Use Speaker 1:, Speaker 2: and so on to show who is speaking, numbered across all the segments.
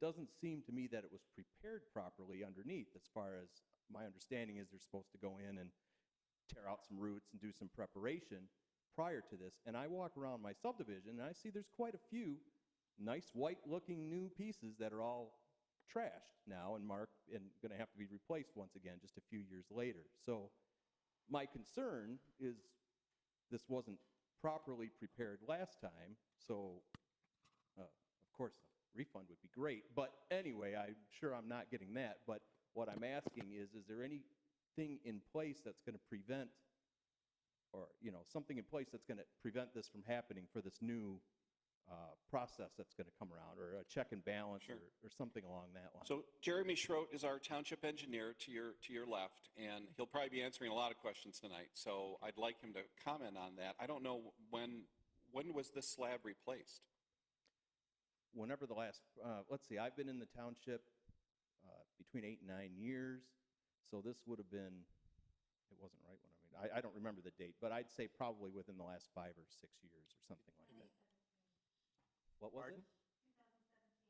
Speaker 1: doesn't seem to me that it was prepared properly underneath as far as my understanding is they're supposed to go in and tear out some roots and do some preparation prior to this. And I walk around my subdivision and I see there's quite a few nice white looking new pieces that are all trashed now and marked and going to have to be replaced once again just a few years later. So my concern is this wasn't properly prepared last time, so uh, of course a refund would be great. But anyway, I'm sure I'm not getting that. But what I'm asking is, is there anything in place that's going to prevent, or you know, something in place that's going to prevent this from happening for this new uh, process that's going to come around, or a check and balance,
Speaker 2: Sure.
Speaker 1: or, or something along that line?
Speaker 2: So Jeremy Schroet is our township engineer to your, to your left, and he'll probably be answering a lot of questions tonight. So I'd like him to comment on that. I don't know when, when was this slab replaced?
Speaker 1: whenever the last, uh, let's see, I've been in the township uh, between eight and nine years, so this would have been, it wasn't right when I mean, I, I don't remember the date, but I'd say probably within the last five or six years or something like that. What was it?
Speaker 3: Pardon?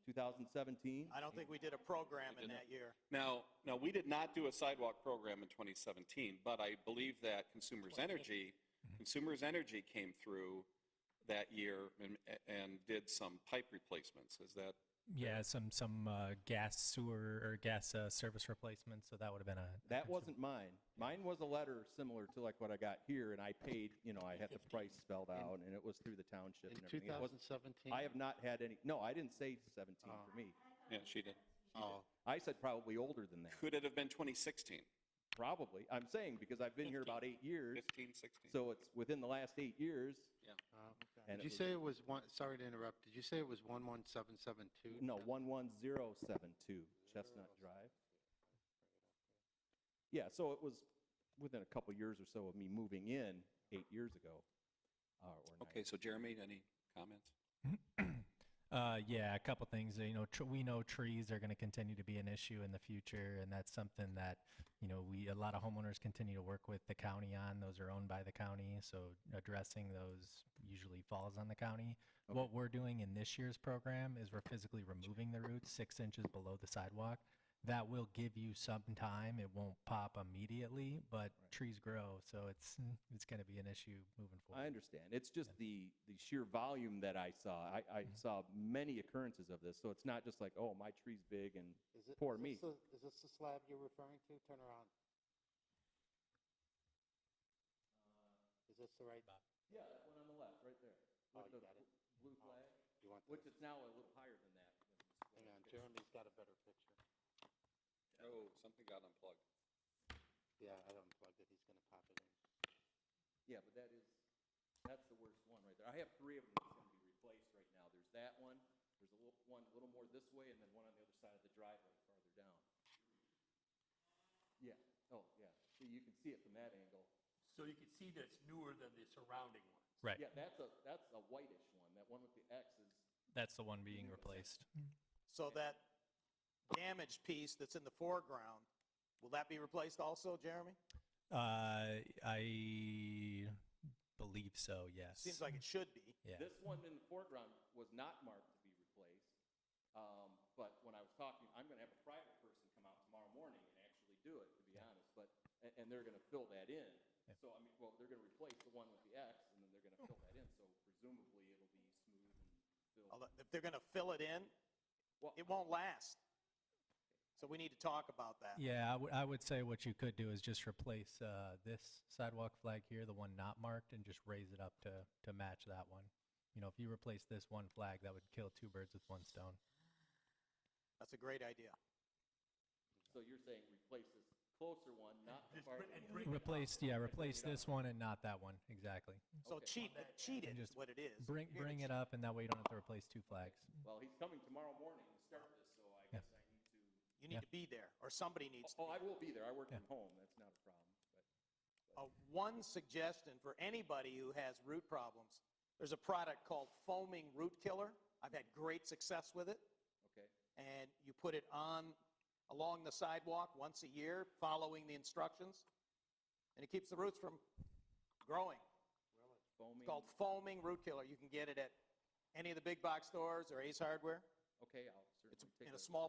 Speaker 1: 2017?
Speaker 3: I don't think we did a program in that year.
Speaker 2: Now, now, we did not do a sidewalk program in 2017, but I believe that Consumers Energy, Consumers Energy came through that year and, and did some pipe replacements. Is that,
Speaker 4: Yeah, some some uh, gas sewer or gas uh, service replacement. So that would have been a a
Speaker 1: That
Speaker 4: concern.
Speaker 1: wasn't mine. Mine was a letter similar to like what I got here, and I paid, you know, I had the price spelled out, and it was through the township
Speaker 5: In
Speaker 1: and everything. It wasn't,
Speaker 5: 2017?
Speaker 1: I have not had any, no, I didn't say 17
Speaker 5: Oh.
Speaker 1: for me.
Speaker 2: yeah, she did.
Speaker 5: Oh,
Speaker 1: I said probably older than that.
Speaker 2: Could it have been 2016,
Speaker 1: Probably. I'm saying because I've been here about eight years,
Speaker 2: 15, 16?
Speaker 1: so it's within the last eight years.
Speaker 5: oh, okay.
Speaker 1: And it
Speaker 5: Did you
Speaker 1: was-
Speaker 5: say it was one, sorry to interrupt, did you say it was 11772?
Speaker 1: No, 11072 Chestnut Drive. Yeah, so it was within a couple years or so of me moving in eight years ago. uh, or nine.
Speaker 2: Okay, so Jeremy, any comments?
Speaker 4: uh, yeah, a couple things. You know, tr- we know trees are going to continue to be an issue in the future, and that's something that you know we a lot of homeowners continue to work with the county on. Those are owned by the county, so addressing those usually falls on the county.
Speaker 1: Okay.
Speaker 4: What we're doing in this year's program is we're physically removing the roots six inches below the sidewalk. That will give you some time. It won't pop immediately, but trees grow, so it's it's going to be an issue moving forward.
Speaker 1: I understand. It's just the, the sheer volume that I saw. I, I saw many occurrences of this, so it's not just like, oh, my tree's big and
Speaker 5: Is it-
Speaker 1: Poor
Speaker 5: is
Speaker 1: me.
Speaker 5: this the- Is this the slab you're referring to? Turn around. Is this the right?
Speaker 1: Yeah, that one on the left, right there.
Speaker 5: Oh,
Speaker 1: With Uh,
Speaker 5: you
Speaker 1: the
Speaker 5: got it.
Speaker 1: bl- Blue
Speaker 5: Oh.
Speaker 1: flag,
Speaker 5: You want
Speaker 1: which
Speaker 5: this?
Speaker 1: is now a little higher than that.
Speaker 5: Hang on, Jeremy's got a better picture.
Speaker 2: Oh, something got unplugged.
Speaker 5: Yeah, I unplugged it, he's going to pop it in.
Speaker 1: Yeah, but that is, that's the worst one right there. I have three of them that's gonna be replaced right now. There's that one, there's a little, one a little more this way, and then one on the other side of the driveway farther down. Yeah, oh, yeah, see, you can see it from that angle.
Speaker 6: So you can see that it's newer than the surrounding ones.
Speaker 4: right.
Speaker 1: Yeah, that's a, that's a whitish one. That one with the X is,
Speaker 4: That's the one being replaced.
Speaker 3: So that damaged piece that's in the foreground, will that be replaced also, Jeremy?
Speaker 4: Uh, I believe so. Yes.
Speaker 3: Seems like it should be.
Speaker 4: Yeah.
Speaker 1: this one in the foreground was not marked to be replaced. Um, but when I was talking, I'm gonna have a private person come out tomorrow morning and actually do it, to be honest, but, and, and they're gonna fill that in. So, I mean, well, they're gonna replace the one with the X, and then they're gonna fill that in, so presumably it'll be smooth and filled.
Speaker 3: Although, If they're going to fill it in,
Speaker 1: Well-
Speaker 3: it won't last. So we need to talk about that.
Speaker 4: Yeah, I would- I would say what you could do is just replace uh, this sidewalk flag here, the one not marked, and just raise it up to to match that one. You know, if you replace this one flag, that would kill two birds with one stone.
Speaker 3: That's a great idea.
Speaker 1: So you're saying replace this closer one, not the
Speaker 6: Just
Speaker 1: farther
Speaker 6: bring- and
Speaker 1: one?
Speaker 6: bring it up.
Speaker 4: Replace, yeah, replace
Speaker 1: bring it up.
Speaker 4: this one and not that one. Exactly.
Speaker 3: So
Speaker 1: Okay.
Speaker 3: cheat, cheat it is
Speaker 4: Just
Speaker 3: what it is.
Speaker 4: Bring
Speaker 3: You're gonna
Speaker 4: bring it up, and that way you don't have to replace two flags.
Speaker 1: Well, he's coming tomorrow morning to start this, so I
Speaker 4: Yeah.
Speaker 1: guess I need to.
Speaker 3: You need to be there, or somebody needs to
Speaker 1: Oh,
Speaker 3: be.
Speaker 1: I will be there. I work
Speaker 4: Yeah.
Speaker 1: from home. That's not a problem, but.
Speaker 3: Uh, one suggestion for anybody who has root problems, there's a product called foaming root killer. I've had great success with it.
Speaker 1: Okay.
Speaker 3: And you put it on along the sidewalk once a year, following the instructions. And it keeps the roots from growing. It's
Speaker 1: Foaming.
Speaker 3: called foaming root killer. You can get it at any of the big box stores or Ace Hardware.
Speaker 1: Okay, I'll certainly. It's in a small